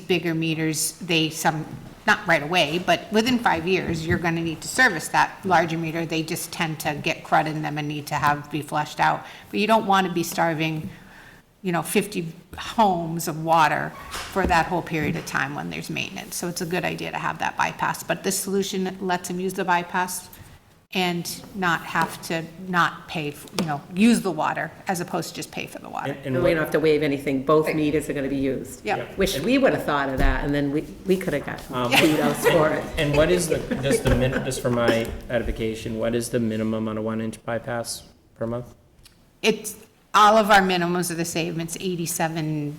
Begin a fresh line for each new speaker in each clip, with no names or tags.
bigger meters, they some, not right away, but within five years, you're going to need to service that larger meter. They just tend to get crud in them and need to have, be flushed out. But you don't want to be starving, you know, 50 homes of water for that whole period of time when there's maintenance. So it's a good idea to have that bypass. But this solution lets them use the bypass and not have to not pay, f- you know, use the water as opposed to just pay for the water.
And-
And
And
we
what-
don't have to waive anything, both meters are gonna be used.
Yeah.
Wish we would have thought of that, and then we, we could have got
Um,
kudos for it.
and what is the, just the min, just for my edification, what is the minimum on a one-inch bypass per month?
It's, all of our minimums are the same, it's eighty-seven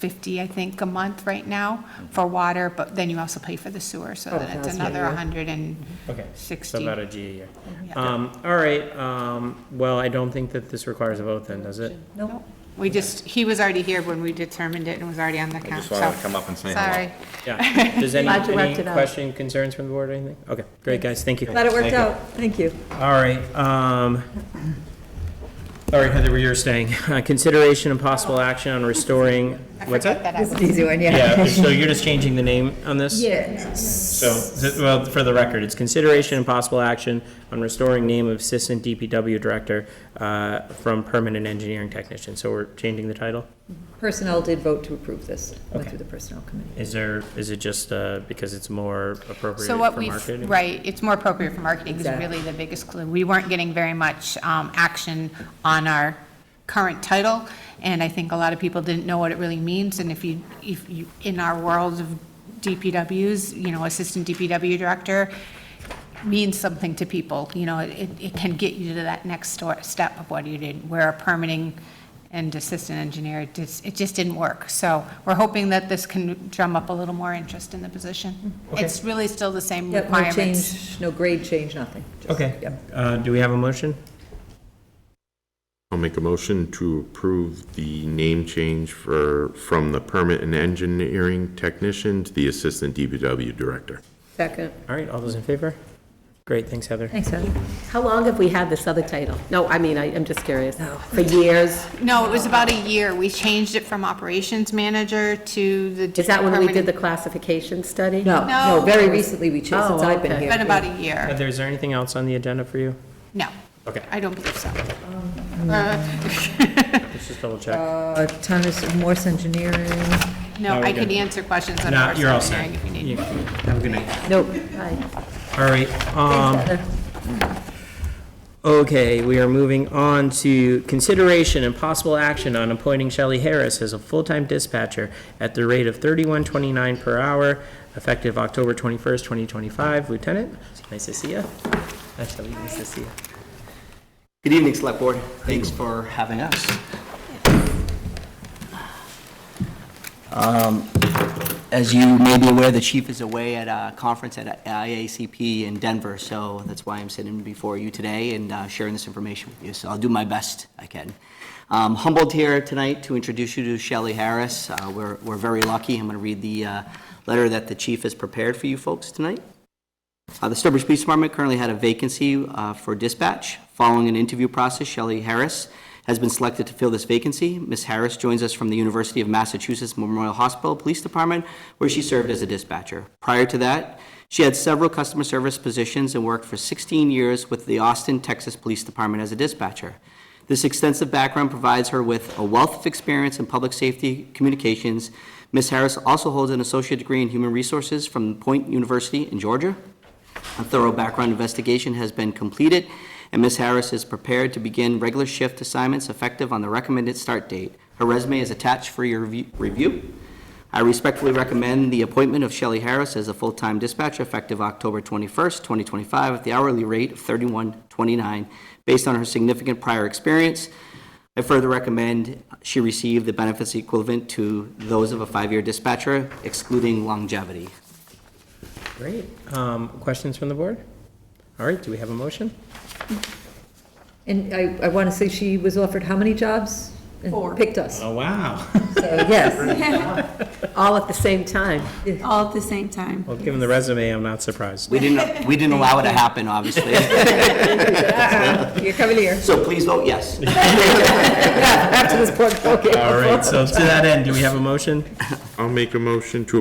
fifty, I think, a month right now for water, but then you also pay for the sewer, so
Oh,
then it's
that's
another
right, yeah.
hundred and
Okay. So
sixty.
about a G a year.
Yeah.
Um, all right, um, well, I don't think that this requires a vote then, does it?
Nope. We just, he was already here when we determined it and was already on the count,
just
so.
wanted to come up and say hello.
Sorry,
Yeah. Does any,
Glad you worked
any
it out.
question, concerns from the board or anything? Okay, great, guys, thank you.
Glad it
Thank
worked
you.
out, thank you.
All right, um, all right, Heather, where you're staying. Uh, Consideration and possible action on restoring,
I
what's
forgot
that?
that I was.
an easy one,
Yeah, so you're just changing the name on this?
Yeah.
So, th- well, for the record, it's consideration and possible action on restoring name of Assistant DPW Director uh, from Permanent Engineering Technician. So we're changing the title?
Personnel did vote to approve this, went
Okay.
through the personnel committee.
Is there, is it just uh, because it's more appropriate
So
for
what we've,
marketing?
right, it's more appropriate for marketing is
Exactly.
really the biggest clue. We weren't getting very much um, action on our current title, and I think a lot of people didn't know what it really means, and if you, if you, in our world of DPWs, you know, Assistant DPW Director means something to people, you know, it, it can get you to that next stor- step of what you did, where a permitting and assistant engineer, it just, it just didn't work. So we're hoping that this can drum up a little more interest in the position. It's really still the same
Yep, no
requirements.
change, no grade change, nothing. Just-
Okay,
yep.
Uh, do we have a motion?
I'll make a motion to approve the name change for, from the permit and engineering technician to the assistant DPW director.
Second,
All right, all those in favor? Great, thanks, Heather.
thanks, Heather.
How long have we had this other title? No, I mean, I, I'm just curious. For years?
No, it was about a year. We changed it from operations manager to the.
Is that when we did the
permanent-
classification study?
No,
No.
no, very recently we changed, since
Oh,
I've been
okay.
here.
Been about a year.
Heather, is there anything else on the agenda for you?
No,
Okay,
I don't believe so.
let's just double check.
Uh, Town of Morse Engineering,
No,
No, we're
I could
good.
answer questions on
No,
our
you're all set.
engineering if you need.
You- Have a good night.
nope,
All right, um, Okay, we are moving on to consideration and possible action on appointing Shelley Harris as a full-time dispatcher at the rate of thirty-one twenty-nine per hour, effective October twenty-first, twenty twenty-five. Lieutenant, nice to see you. Shelley, nice to see you.
Good evening, Select Board. Thanks for having us. Um, As you may be aware, the chief is away at a conference at IACP in Denver, so that's why I'm sitting before you today and uh, sharing this information with you. So I'll do my best I can. Um, Humbled here tonight to introduce you to Shelley Harris. Uh, We're we're very lucky. I'm going to read the uh, letter that the chief has prepared for you folks tonight. Uh, The Sturbridge Police Department currently had a vacancy uh, for dispatch. Following an interview process, Shelley Harris has been selected to fill this vacancy. Ms. Harris joins us from the University of Massachusetts Memorial Hospital Police Department, where she served as a dispatcher. Prior to that, she had several customer service positions and worked for 16 years with the Austin, Texas Police Department as a dispatcher. This extensive background provides her with a wealth of experience in public safety communications. Ms. Harris also holds an associate degree in human resources from Point University in Georgia. A thorough background investigation has been completed, and Ms. Harris is prepared to begin regular shift assignments effective on the recommended start date. Her resume is attached for your review- review. I respectfully recommend the appointment of Shelley Harris as a full-time dispatcher effective October 21st, 2025, at the hourly rate of 31.29, based on her significant prior experience. I further recommend she receive the benefits equivalent to those of a five-year dispatcher, excluding longevity.
Great. Um, questions from the board? All right, do we have a motion?
and I, I want to say she was offered how many jobs? Four. Picked us, so
Oh, wow.
yes,
All at the same time?
all at the same time.
Well, given the resume, I'm not surprised.
We didn't, we didn't allow it to happen, obviously.
you're coming here.
So please vote yes.
All right, so to that end, do we have a motion?
I'll make a motion to